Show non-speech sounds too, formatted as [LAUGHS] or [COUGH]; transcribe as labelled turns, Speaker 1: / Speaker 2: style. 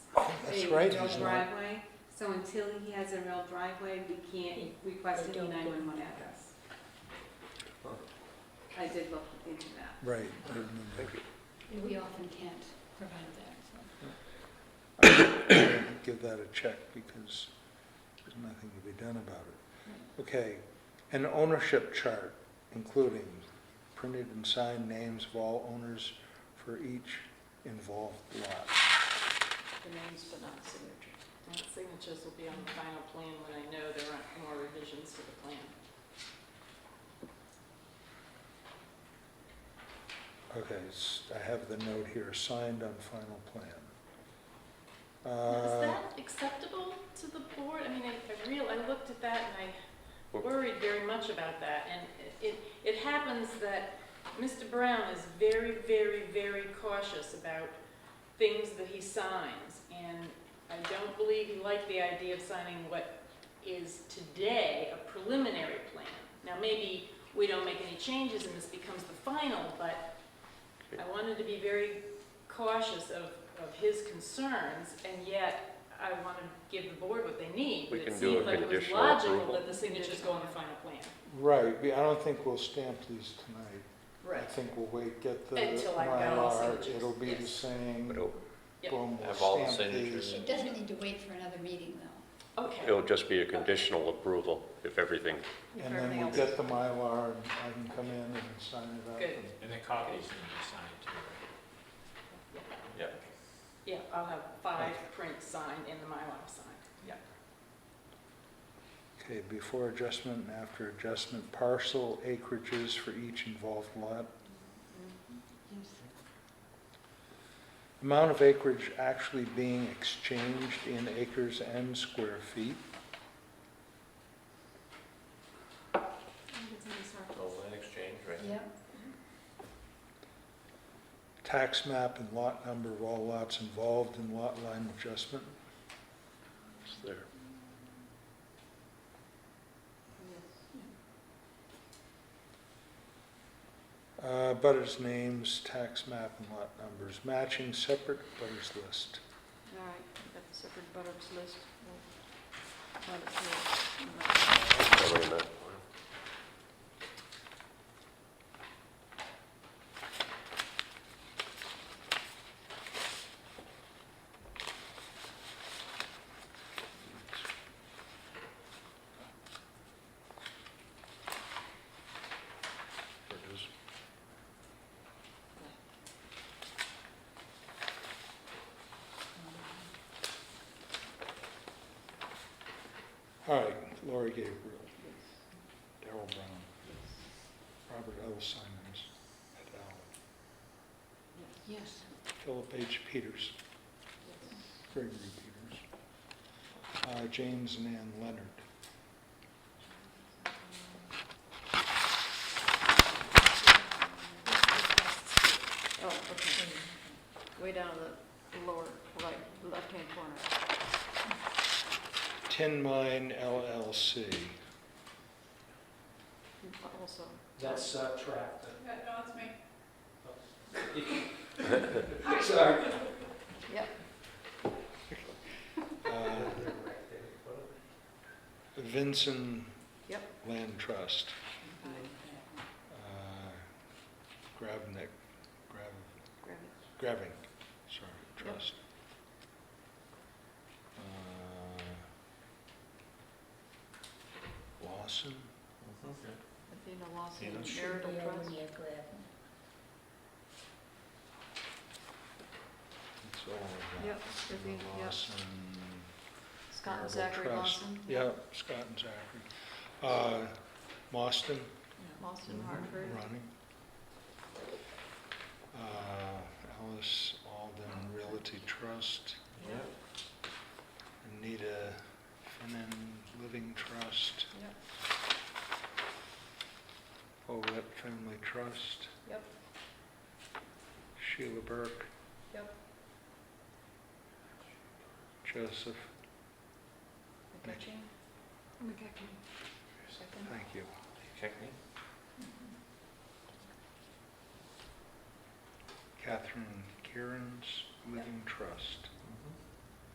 Speaker 1: That's
Speaker 2: a
Speaker 1: right,
Speaker 2: real
Speaker 1: he's not-
Speaker 2: driveway, so until he has a real driveway, we can't request an E nine one one address. I did look into that.
Speaker 1: Right. I remember.
Speaker 3: We often can't provide that, so.
Speaker 1: I'll Give that a check because there's nothing to be done about it. Okay, an ownership chart, including printed and signed names of all owners for each involved lot.
Speaker 4: The names but not signatures. And the signatures will be on the final plan when I know there aren't more revisions to the plan.
Speaker 1: Okay, s- I have the note here, signed on final plan.
Speaker 4: Is
Speaker 1: Uh,
Speaker 4: that acceptable to the board? I mean, I, I real, I looked at that and I worried very much about that. And it, it happens that Mr. Brown is very, very, very cautious about things that he signs. And I don't believe he liked the idea of signing what is today a preliminary plan. Now, maybe we don't make any changes and this becomes the final, but I wanted to be very cautious of, of his concerns, and yet I want to give the board what they need.
Speaker 5: We
Speaker 4: but
Speaker 5: can do a conditional
Speaker 4: It seemed like it was
Speaker 5: approval.
Speaker 4: logical that the signatures go on the final plan.
Speaker 1: Right, we- I don't think we'll stamp these tonight. I think we'll wait, get the
Speaker 4: Until I've got all
Speaker 1: Mylar,
Speaker 4: signatures,
Speaker 1: it'll be the
Speaker 4: yes.
Speaker 1: same,
Speaker 5: But it'll,
Speaker 4: Yep.
Speaker 1: boom, we'll
Speaker 5: Have all the
Speaker 1: stamp
Speaker 5: signatures.
Speaker 1: these.
Speaker 3: It doesn't need to wait for another meeting, though.
Speaker 4: Okay,
Speaker 5: it'll just be a conditional approval if everything,
Speaker 1: And then we'll get the Mylar, and I can come in and sign it up.
Speaker 4: Good.
Speaker 1: and-
Speaker 6: And the copies need to be signed too, right?
Speaker 5: yeah,
Speaker 4: yeah, I'll have five prints signed and the Mylar signed. Yeah.
Speaker 1: Okay, before adjustment and after adjustment, parcel acreages for each involved lot. Amount of acreage actually being exchanged in acres and square feet.
Speaker 5: the land exchange, right?
Speaker 3: Yep.
Speaker 1: Tax map and lot number of all lots involved in lot line adjustment.
Speaker 5: It's there.
Speaker 1: Uh, Butters names, tax map, and lot numbers, matching separate butters list.
Speaker 4: All right, got the separate butters list.
Speaker 5: Oh, wait a minute.
Speaker 1: There it is. All right, Lori Gabriel, Darrell Brown, Robert L. Simons, et al.,
Speaker 3: Yes.
Speaker 1: Philip H. Peters, Gregory Peters, uh, James and Ann Leonard.
Speaker 4: Oh, okay. Way down the lower, right, left-hand corner.
Speaker 1: Tin Mine LLC.
Speaker 4: Also.
Speaker 6: That's uh, trapped.
Speaker 4: No, it's me.
Speaker 6: Oh. [LAUGHS] Sorry.
Speaker 1: uh, Vinson
Speaker 4: Yep.
Speaker 1: Land Trust, uh, Gravnik, Grav, Graving, sorry, Trust. Uh, Lawson,
Speaker 4: Athena Lawson,
Speaker 6: Athena.
Speaker 4: marital trust.
Speaker 1: it's all of that.
Speaker 4: Yep,
Speaker 1: And
Speaker 4: Athena, yep. Mm-hmm.
Speaker 1: Lawson.
Speaker 4: Scott and
Speaker 1: Marital
Speaker 4: Zachary
Speaker 1: Trust.
Speaker 4: Lawson.
Speaker 1: Yeah, Scott and Zachary. Uh, Mostyn,
Speaker 4: Lawson
Speaker 1: Mm-hmm.
Speaker 4: Hartford.
Speaker 1: Ronnie. Uh, Alice Alden Realty Trust,
Speaker 4: Yep,
Speaker 1: Anita Finnan Living Trust,
Speaker 4: yep,
Speaker 1: Olet Family Trust,
Speaker 4: yep,
Speaker 1: Sheila Burke,
Speaker 4: yep.
Speaker 1: Joseph,
Speaker 4: McCutcheon? McCutcheon. Second.
Speaker 1: thank you. Catherine Kieran's Living Trust.